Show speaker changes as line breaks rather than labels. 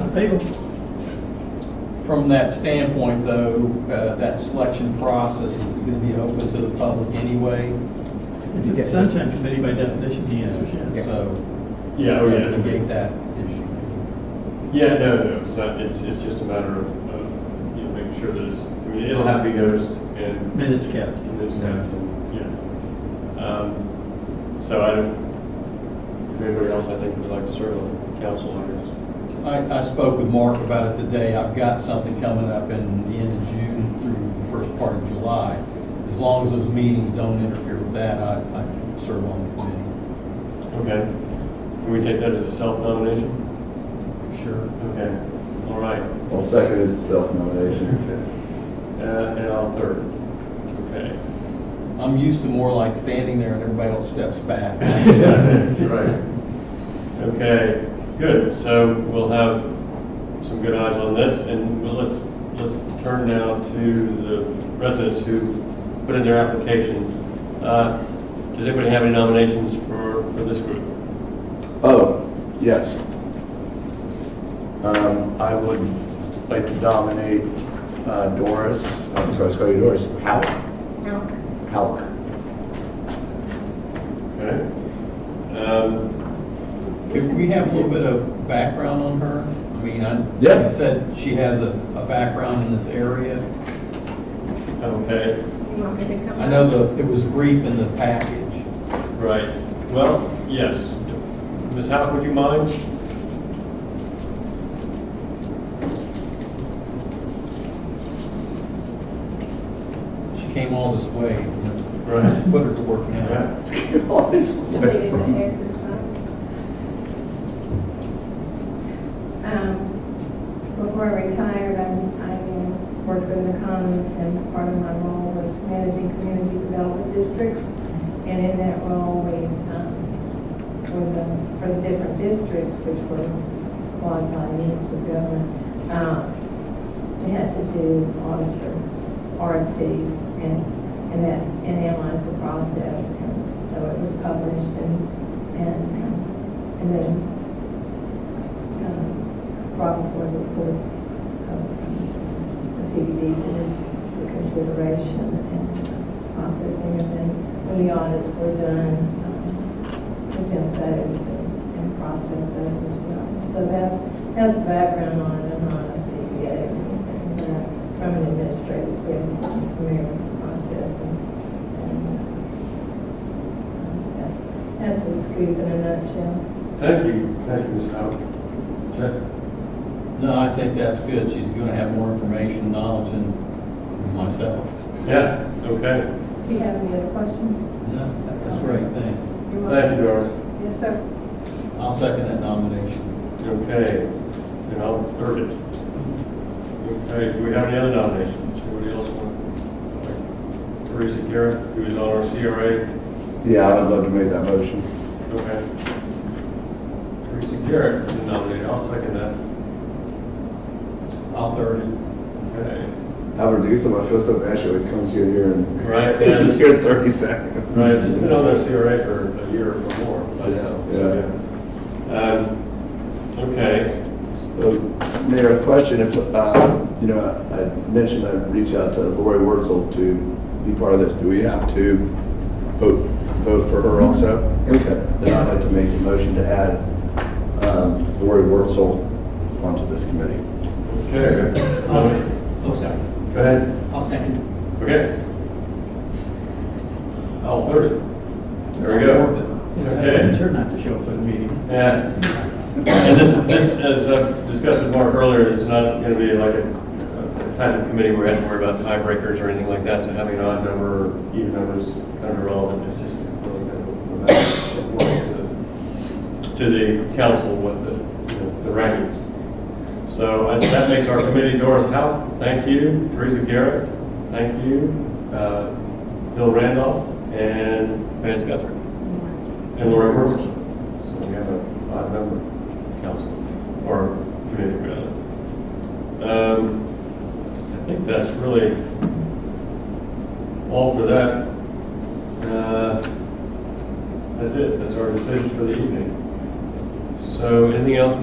appeal.
From that standpoint, though, uh, that selection process is going to be open to the public anyway,
If it's sunshine committee, by definition, the answer is yes.
so
Yeah, oh,
we're
yeah.
gonna negate that issue.
Yeah, no, no, it's not, it's, it's just a matter of, of, you know, making sure that it's, I mean, it'll have to be noticed and
Minutes kept.
there's no, yes. Um, so I don't, if anybody else, I think would like to serve on council, I guess.
I, I spoke with Mark about it today. I've got something coming up in the end of June through the first part of July. As long as those meetings don't interfere with that, I, I serve on
Okay. Can we take that as a self-nomination?
the committee. Sure.
Okay, all right.
I'll second his self-nomination.
Uh, and I'll third. Okay.
I'm used to more like standing there and everybody else steps back.
Right. Okay, good, so we'll have some good eyes on this, and we'll- let's, let's turn now to the residents who put in their application. Uh, Does anybody have any nominations for, for this group?
Oh, yes. Um, I would like to nominate uh, Doris, I'm sorry, I was calling you Doris, Halk? Halk.
Okay? Um,
Could we have a little bit of background on her? I mean, I,
Yeah.
you said she has a, a background in this area.
Okay,
You want me to come?
I know the, it was brief in the package.
right, well, yes. Ms. Howe, would you mind?
She came all this way. you know,
Right.
Put her to work now.
David Texas, huh? Um, Before I retired, I, I worked in the Commons and part of my role was managing community development districts. And in that role, we, um, for the, for the different districts, which were quasi units of government, uh, we had to do auditor RFPs and, and that, and analyze the process. And So it was published and, and, um, and then, um, brought before the boards of the CBD boards for consideration and processing. And then when the audits were done, um, present those and and process those as well. So that's, that's the background on, it, on a CBA. And, uh, From an administrative standpoint, I'm familiar with the process and, and, uh, that's, that's the scoop in a nutshell.
Thank you, thank you, Ms. Howe. Okay.
No, I think that's good. She's gonna have more information, knowledge than myself.
Yeah, okay.
Do you have any other questions?
No, That's great, thanks.
You're
Thank you,
welcome.
Doris.
Yes, sir.
I'll second that nomination.
Okay, and I'll third it. Okay, do we have any other nominations? Anybody else want? Teresa Garrett, who is on our CRA.
Yeah, I would love to make that motion.
Okay. Teresa Garrett is nominated, I'll second that.
I'll third it.
Okay.
Albert, do you something? I feel so bad she always comes here here and.
Right.
It's just here in thirty seconds.
Right, she's been on our CRA for a year or more, I know. so, yeah. Um, okay,
So, Mayor, a question, if, uh, you know, I I mentioned I'd reach out to Lori Wurzel to be part of this, do we have to vote, vote for her also? Okay. Then I'd like to make a motion to add um, Lori Wurzel onto this committee.
okay. Um,
Oh, sorry.
Go ahead.
I'll second.
Okay. I'll third it. There we go. Okay.
Sure not to show up at a meeting.
Yeah, and this, this, as I discussed with Mark earlier, it's not going to be like a a type of committee where we have to worry about tiebreakers or anything like that, so having an odd number or even number is kind of irrelevant, it's just really kind of go back to the- to the council with the, you know, the rankings. So I- that makes our committee, Doris Howe, thank you, Teresa Garrett, thank you, uh, Bill Randolph, and Vance Guthrie. And Lori Herbert. So we have a five-member council, or committee, rather. Um, I think that's really all for that. Uh, That's it, that's our decision for the evening. So anything else,